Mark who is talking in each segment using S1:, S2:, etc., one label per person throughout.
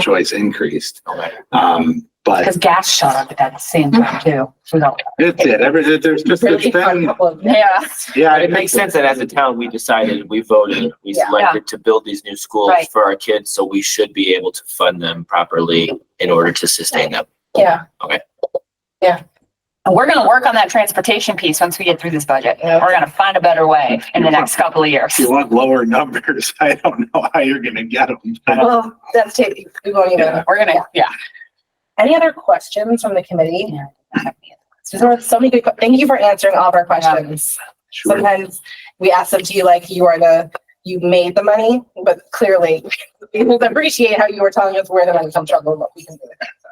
S1: choice increased. Um, but
S2: Because gas shot up at that same time too. We don't-
S1: it did, every, there- there's just,
S2: Really
S1: there's
S2: fun
S1: been,
S2: couple of- Yeah,
S1: yeah.
S3: But Uh, it makes sense that as a town, we decided, we voted, we
S2: Yeah.
S3: selected to build these new schools
S2: Right.
S3: for our kids, so we should be able to fund them properly in order to sustain them.
S2: yeah.
S3: Okay.
S2: Yeah. And we're gonna work on that transportation piece once we get through this budget. We're gonna find a better way in the next couple of years.
S1: If you want lower numbers, I don't know how you're gonna get them.
S4: Well, that's taking, we won't even,
S2: We're gonna, yeah.
S4: any other questions from the committee? There were so many good, que- thank you for answering all of our questions.
S1: Sure.
S4: Sometimes we ask them to you like you are the, you made the money, but clearly we would appreciate how you were telling us where the money comes from and what we can do with it. so.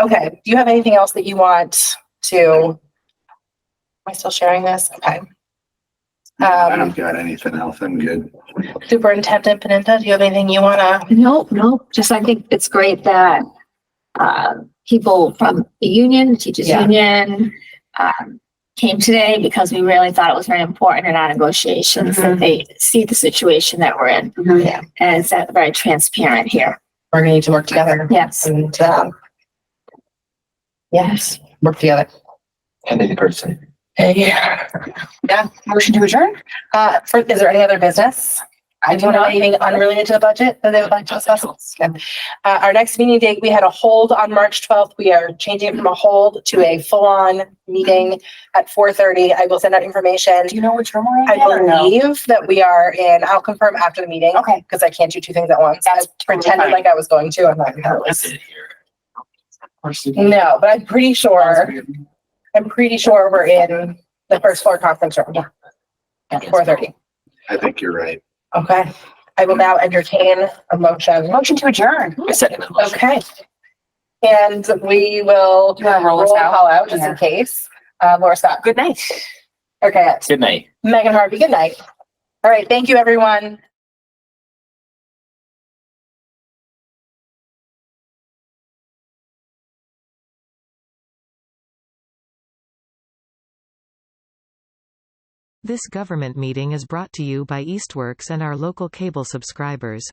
S4: Okay, do you have anything else that you want to? Am I still sharing this? Okay.
S1: I don't
S4: Um,
S1: got anything else. I'm good.
S4: Superintendent Peninta, do you have anything you wanna?
S5: No, no, just I think it's great that uh, people from the union, the teachers
S4: Yeah.
S5: union, um, came today because we really thought it was very important in our negotiations
S4: Mm-hmm.
S5: that they see the situation that we're in
S2: Mhm.
S4: Yeah.
S5: and it's uh, very transparent here.
S4: We're gonna need to work together
S5: Yes.
S4: and, um, yes, work together.
S3: And in person.
S4: Yeah.
S2: Yeah, motion to adjourn?
S4: Uh, for, is there any other business? I do not have anything unrelated to the budget that they would like to discuss. Uh, our next meeting date, we had a hold on March twelfth. We are changing it from a hold to a full-on meeting at four thirty. I will send out information.
S2: Do you know which room we're in?
S4: I
S2: yet or no?
S4: believe that we are in, I'll confirm after the meeting.
S2: Okay.
S4: Because I can't do two things at once. I
S2: That's totally
S4: pretended
S2: fine.
S4: like I was going to. I'm not. I
S3: I
S4: was-
S3: did hear.
S4: No, but I'm pretty sure, I'm pretty sure we're in the first floor conference room.
S3: Yes.
S4: Four thirty.
S1: I think you're right.
S4: Okay, I will now entertain a motion.
S2: Motion to adjourn.
S3: I second that motion.
S4: Okay. And we will
S2: Do you wanna roll
S4: roll
S2: us out?
S4: call out just in
S2: Yeah.
S4: case. Uh, Laura Scott.
S2: Good night.
S4: Okay,
S3: Good night.
S4: Megan Harvey, good night. All right, thank you, everyone.
S6: This government meeting is brought to you by Eastworks and our local cable subscribers.